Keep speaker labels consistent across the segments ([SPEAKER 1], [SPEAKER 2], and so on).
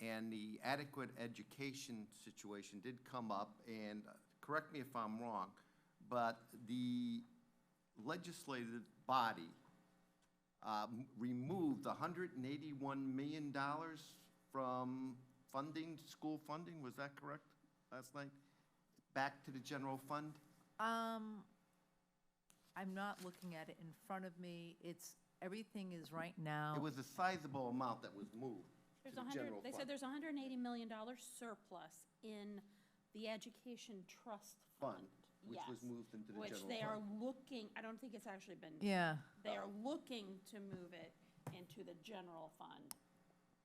[SPEAKER 1] and the adequate education situation did come up, and uh, correct me if I'm wrong, but the legislative body um, removed $181 million from funding, school funding, was that correct last night? Back to the general fund?
[SPEAKER 2] Um, I'm not looking at it in front of me. It's, everything is right now.
[SPEAKER 1] It was a sizable amount that was moved to
[SPEAKER 3] There's
[SPEAKER 1] the
[SPEAKER 3] a hundred,
[SPEAKER 1] general
[SPEAKER 3] they said
[SPEAKER 1] fund.
[SPEAKER 3] there's a hundred and eighty million dollar surplus in the education trust
[SPEAKER 1] Fund,
[SPEAKER 3] fund.
[SPEAKER 1] which was
[SPEAKER 3] Yes.
[SPEAKER 1] moved into the
[SPEAKER 3] Which
[SPEAKER 1] general
[SPEAKER 3] they are
[SPEAKER 1] fund.
[SPEAKER 3] looking, I don't think it's actually been.
[SPEAKER 2] Yeah,
[SPEAKER 3] They are looking to move it into the general fund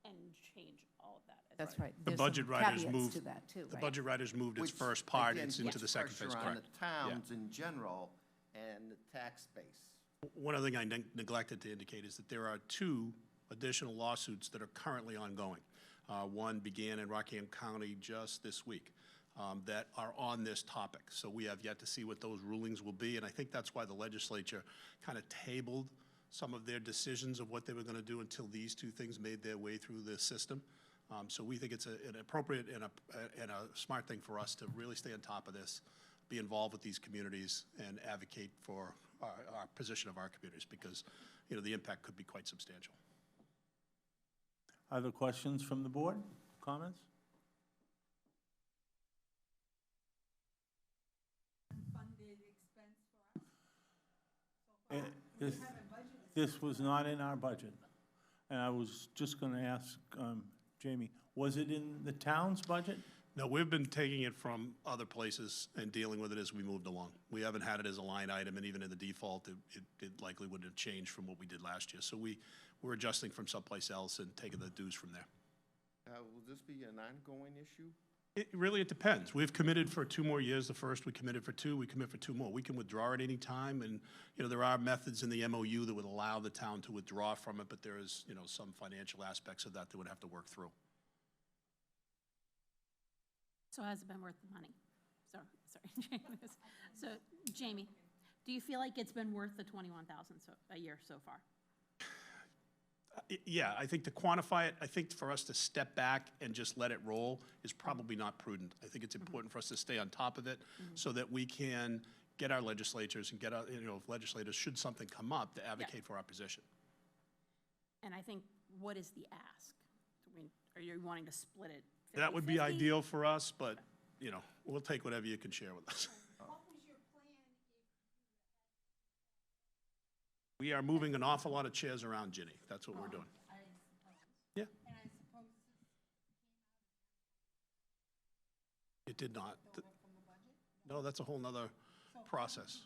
[SPEAKER 3] and change all of that. as
[SPEAKER 2] that's
[SPEAKER 3] well.
[SPEAKER 2] right.
[SPEAKER 4] The
[SPEAKER 2] There's some
[SPEAKER 4] budget writers
[SPEAKER 2] caveats
[SPEAKER 4] moved.
[SPEAKER 2] To that, too,
[SPEAKER 4] The
[SPEAKER 2] right?
[SPEAKER 4] budget writers moved its
[SPEAKER 1] Which,
[SPEAKER 4] first part,
[SPEAKER 1] again,
[SPEAKER 4] it's into
[SPEAKER 1] puts
[SPEAKER 4] the second phase,
[SPEAKER 1] Pressure on
[SPEAKER 4] correct?
[SPEAKER 1] the towns in general and the tax base.
[SPEAKER 4] One other thing I neg- neglected to indicate is that there are two additional lawsuits that are currently ongoing. Uh, One began in Rockingham County just this week um, that are on this topic. So we have yet to see what those rulings will be, and I think that's why the legislature kind of tabled some of their decisions of what they were going to do until these two things made their way through the system. Um, So we think it's a- an appropriate and a, and a smart thing for us to really stay on top of this, be involved with these communities and advocate for our, our position of our communities because, you know, the impact could be quite substantial.
[SPEAKER 5] Other questions from the board? Comments? Eh, This, this was not in our budget. And I was just going to ask um, Jamie, was it in the town's budget?
[SPEAKER 4] No, we've been taking it from other places and dealing with it as we moved along. We haven't had it as a line item, and even in the default, it, it- it likely would have changed from what we did last year. So we, we're adjusting from someplace else and taking the dues from there.
[SPEAKER 1] Uh, Will this be an ongoing issue?
[SPEAKER 4] It, really, it depends. We've committed for two more years. The first, we committed for two, we commit for two more. We can withdraw at any time, and, you know, there are methods in the MOU that would allow the town to withdraw from it, but there is, you know, some financial aspects of that that would have to work through.
[SPEAKER 3] So has it been worth the money? Sorry, sorry, James. So, Jamie, do you feel like it's been worth the twenty-one thousand so, a year so far?
[SPEAKER 4] I- Uh, Yeah, I think to quantify it, I think for us to step back and just let it roll is probably not prudent. I think it's important for us to stay on top of it so that we can get our legislatures and get our, you know, if legislators, should something come up, to advocate for our position.
[SPEAKER 3] And I think, what is the ask? I mean, are you wanting to split it?
[SPEAKER 4] That would be
[SPEAKER 3] 50-50?
[SPEAKER 4] ideal for us, but, you know, we'll take whatever you can share with us. We are moving an awful lot of chairs around, Ginny. That's what we're doing. Yeah. It did not. Th- No, that's a whole nother process.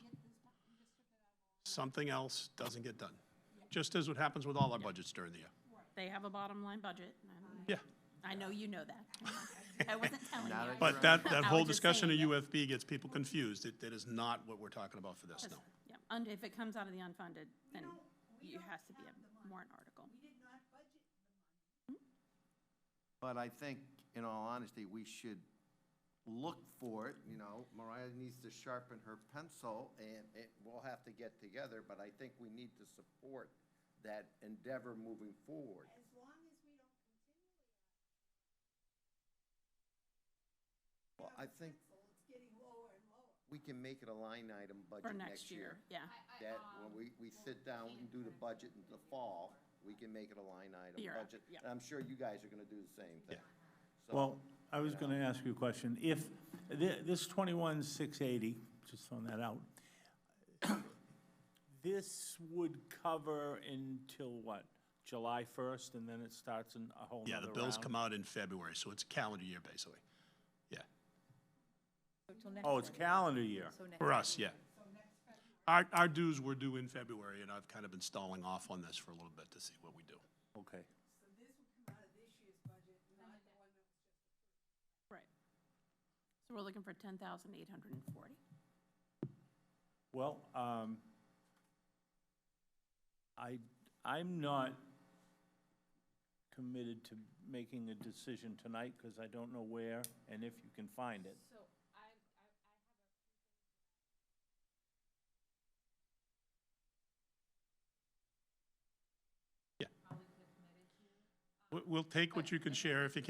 [SPEAKER 4] Something else doesn't get done, just as what happens with all our budgets during the year.
[SPEAKER 3] They have a bottom line budget. and I don't-
[SPEAKER 4] Yeah.
[SPEAKER 3] I know you know that. I wasn't telling
[SPEAKER 1] Not
[SPEAKER 3] you.
[SPEAKER 1] a
[SPEAKER 4] But that,
[SPEAKER 3] I
[SPEAKER 4] that
[SPEAKER 3] was
[SPEAKER 4] whole
[SPEAKER 3] just
[SPEAKER 4] discussion of
[SPEAKER 3] saying
[SPEAKER 4] UFB gets people confused. It, that is not what we're talking about for this,
[SPEAKER 3] That's-
[SPEAKER 4] no.
[SPEAKER 3] Yeah, und, if it comes out of the unfunded, then it has to be a warrant article.
[SPEAKER 1] But I think, in all honesty, we should look for it, you know, Mariah needs to sharpen her pencil, and it, we'll have to get together, but I think we need to support that endeavor moving forward. As long as we don't continue. Well, I think. We can make it a line item
[SPEAKER 3] For
[SPEAKER 1] budget
[SPEAKER 3] next year, yeah.
[SPEAKER 1] that when we, we sit down and do the budget in the fall, we can make it a line item
[SPEAKER 3] Year up,
[SPEAKER 1] budget.
[SPEAKER 3] yeah.
[SPEAKER 1] And I'm sure you guys are gonna do the same thing. So-
[SPEAKER 5] Well, I was going to ask you a question. If thi- this 21,680, just throwing that out, this would cover until what? July 1st, and then it starts in a whole
[SPEAKER 4] Yeah,
[SPEAKER 5] nother
[SPEAKER 4] the bills
[SPEAKER 5] round?
[SPEAKER 4] come out in February, so it's calendar year, basically. Yeah,
[SPEAKER 5] Oh, it's calendar year.
[SPEAKER 4] for us, yeah. Our, our dues were due in February, and I've kind of been stalling off on this for a little bit to see what we do.
[SPEAKER 5] Okay.
[SPEAKER 3] Right. So we're looking for ten thousand eight hundred and forty.
[SPEAKER 5] Well, um, I, I'm not committed to making a decision tonight because I don't know where and if you can find it.
[SPEAKER 4] We- We'll take what you can share if you can.